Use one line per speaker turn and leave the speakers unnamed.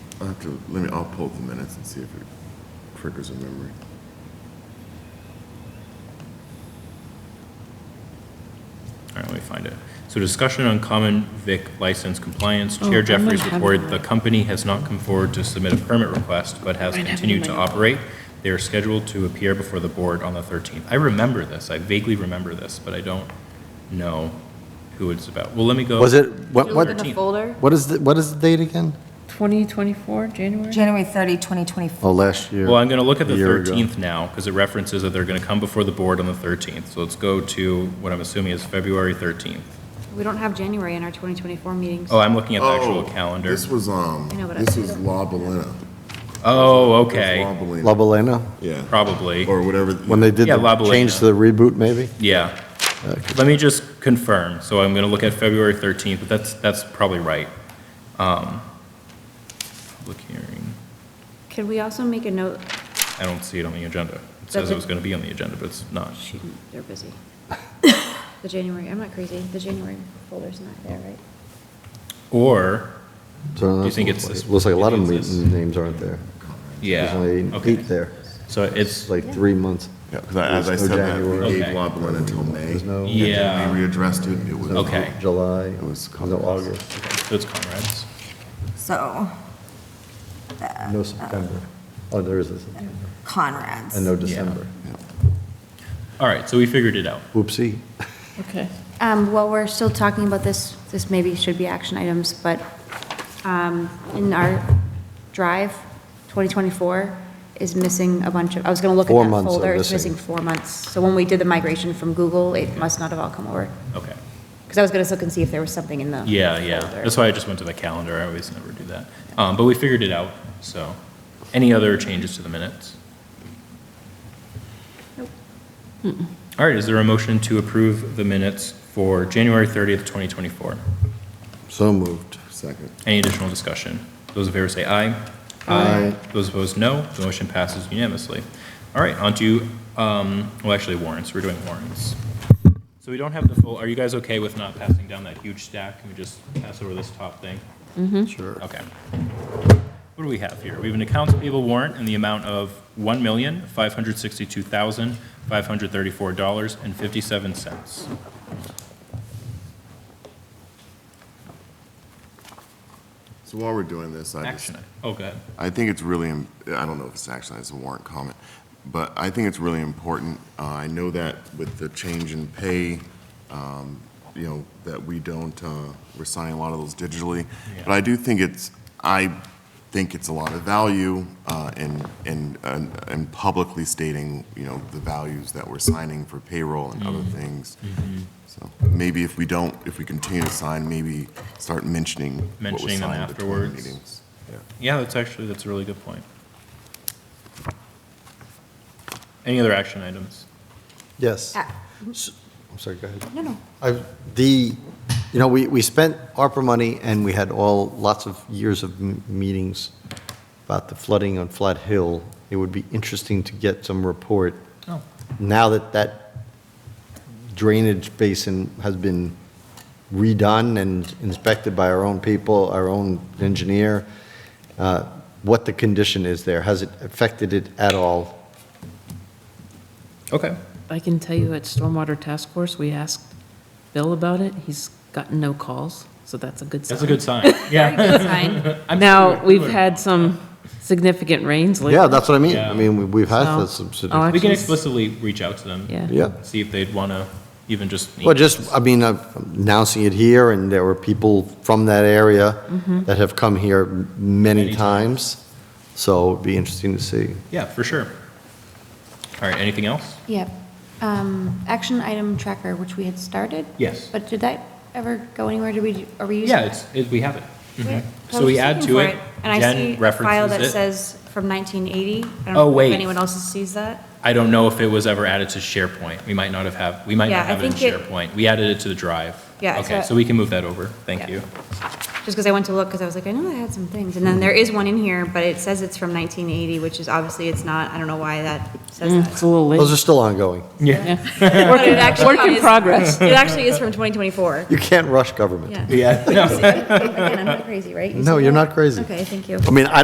I'll have to, let me, I'll pull the minutes and see if it triggers a memory.
All right, let me find it. So discussion on common vic license compliance.
Oh,
Chair
I might
Jeffries
have
reported
that.
the company has not come forward to submit a permit request, but has
Might have it in
continued
my
to
notebook.
operate. They are scheduled to appear before the board on the 13th. I remember this. I vaguely remember this, but I don't know who it's about. Well, let me go.
Was it, what,
Thirteenth.
what,
Thirteen.
folder?
what is, the what is the date again?
2024, January?
January 30, 2024.
Oh, last year.
Well, I'm going to look at the
A year ago.
13th now, because it references that they're going to come before the board on the 13th. So let's go to what I'm assuming is February 13th.
We don't have January in our 2024 meetings.
Oh, I'm looking at the actual
Oh,
calendar.
This was, um,
I know, but I-
this was La Bellina.
Oh,
It was La
okay,
Bellina.
La Bellena,
Yeah.
probably.
Or whatever.
when they did
Yeah, La
the change
Bellena.
to the reboot, maybe?
Yeah. Let me just confirm. So I'm going to look at February 13th, but that's, that's probably right. Um, Public hearing,
Could we also make a note,
I don't see it on the agenda. It says it was going to be on the agenda, but it's not.
shoot, Mm, they're busy. The January, I'm not crazy, the January folder's not there, right?
Or,
So
you
that's-
think it's this-
Looks like a lot of
you think
meet-
it's this?
names aren't there. There's
yeah.
only
okay.
eight there.
So
It's
it's,
like three months.
Yeah, because as I
There's no
said, that we
January.
gave La Bellina until May.
There's no-
And
Yeah.
then we readdressed it. It was.
Okay.
July, it
was
was no August,
so it's Conrad's.
So
no September. Oh, there is a September,
Conrad's.
and no December.
All right, so we figured it out.
Whoopsie.
Okay.
Um, While we're still talking about this, this maybe should be action items, but um, in our drive, 2024 is missing a bunch of, I was going to look
Four
at that
months are
folder. It's
missing.
missing four months. So when we did the migration from Google, it must not have all come over.
Okay.
Because I was going to look and see if there was something in the.
Yeah, yeah.
folder.
That's why I just went to the calendar. I always never do that. Um, But we figured it out, so. Any other changes to the minutes? All right, is there a motion to approve the minutes for January 30th, 2024?
So moved.
Second.
Any additional discussion? Those in favor say aye.
Aye.
Those opposed, no. The motion passes unanimously. All right, on to, um, well, actually warrants. We're doing warrants. So we don't have the full, are you guys okay with not passing down that huge stack? Can we just pass over this top thing?
Sure.
Okay. What do we have here? We have an accounts payable warrant in the amount of $1,562,534.57.
So while we're doing this, I just
Action. item. Oh, go ahead.
I think it's really, im- I don't know if it's actually, it's a warrant comment, but I think it's really important. Uh, I know that with the change in pay, um, you know, that we don't, uh, we're signing a lot of those digitally.
Yeah.
But I do think it's, I think it's a lot of value uh, in, in, in publicly stating, you know, the values that we're signing for payroll and other
Mm-hmm.
things. So maybe if we don't, if we continue to sign, maybe start mentioning what was
Mentioning them
signed between
afterwards.
meetings. Yeah.
Yeah, that's actually, that's a really good point. Any other action items?
Yes.
Uh,
Ah.
S- I'm sorry, go ahead.
No, no.
I- The, you know, we, we spent ARPA money and we had all, lots of years of m- meetings about the flooding on Flat Hill. It would be interesting to get some report,
Oh.
now that that drainage basin has been redone and inspected by our own people, our own engineer, uh, what the condition is there. Has it affected it at all?
Okay.
I can tell you at Stormwater Task Force, we asked Bill about it. He's gotten no calls, so that's a good sign.
That's a good sign. Yeah. I'm sure
Now,
it
we've
would.
had some significant rains lately.
Yeah, that's what I mean. I
Yeah.
mean, we- we've had
So,
this. subsidi-
I'll
We can
actually-
explicitly reach out to them.
Yeah.
Yeah.
See if they'd want to even just.
Well, just, I mean, I'm announcing it here, and there were people from that area that have come here many
Many
times, so it'd be interesting to see.
Yeah, for sure. All right, anything else?
Yep. Um, Action item tracker, which we had started?
Yes.
But did that ever go anywhere? Did we, are we using?
Yeah, it's, it, we have it. Mm-hmm.
Where- I
So
was
we
just
add
looking
to
for
it,
And I
Jen
see a file
references
that
it.
says from 1980. I don't
Oh,
know if
wait.
Anyone else sees that?
I don't know if it was ever added to SharePoint. We might not have have, we might
Yeah,
not
I
have it in
think it-
SharePoint. We added it to the drive.
Yeah,
Okay,
so-
so we can move that over.
Yeah.
Thank you.
Just because I went to look, because I was like, I know I had some things. And then there is one in here, but it says it's from 1980, which is obviously it's not. I don't know why that says
Mm, It's a
that.
little
Those are
late.
still ongoing.
But it actually
Work in
is-
progress.
It actually is from 2024.
You can't rush government.
Yeah.
Yeah.
Again, I'm not crazy, right? You
No,
said
you're
that?
not crazy.
Okay, thank you.
I mean, I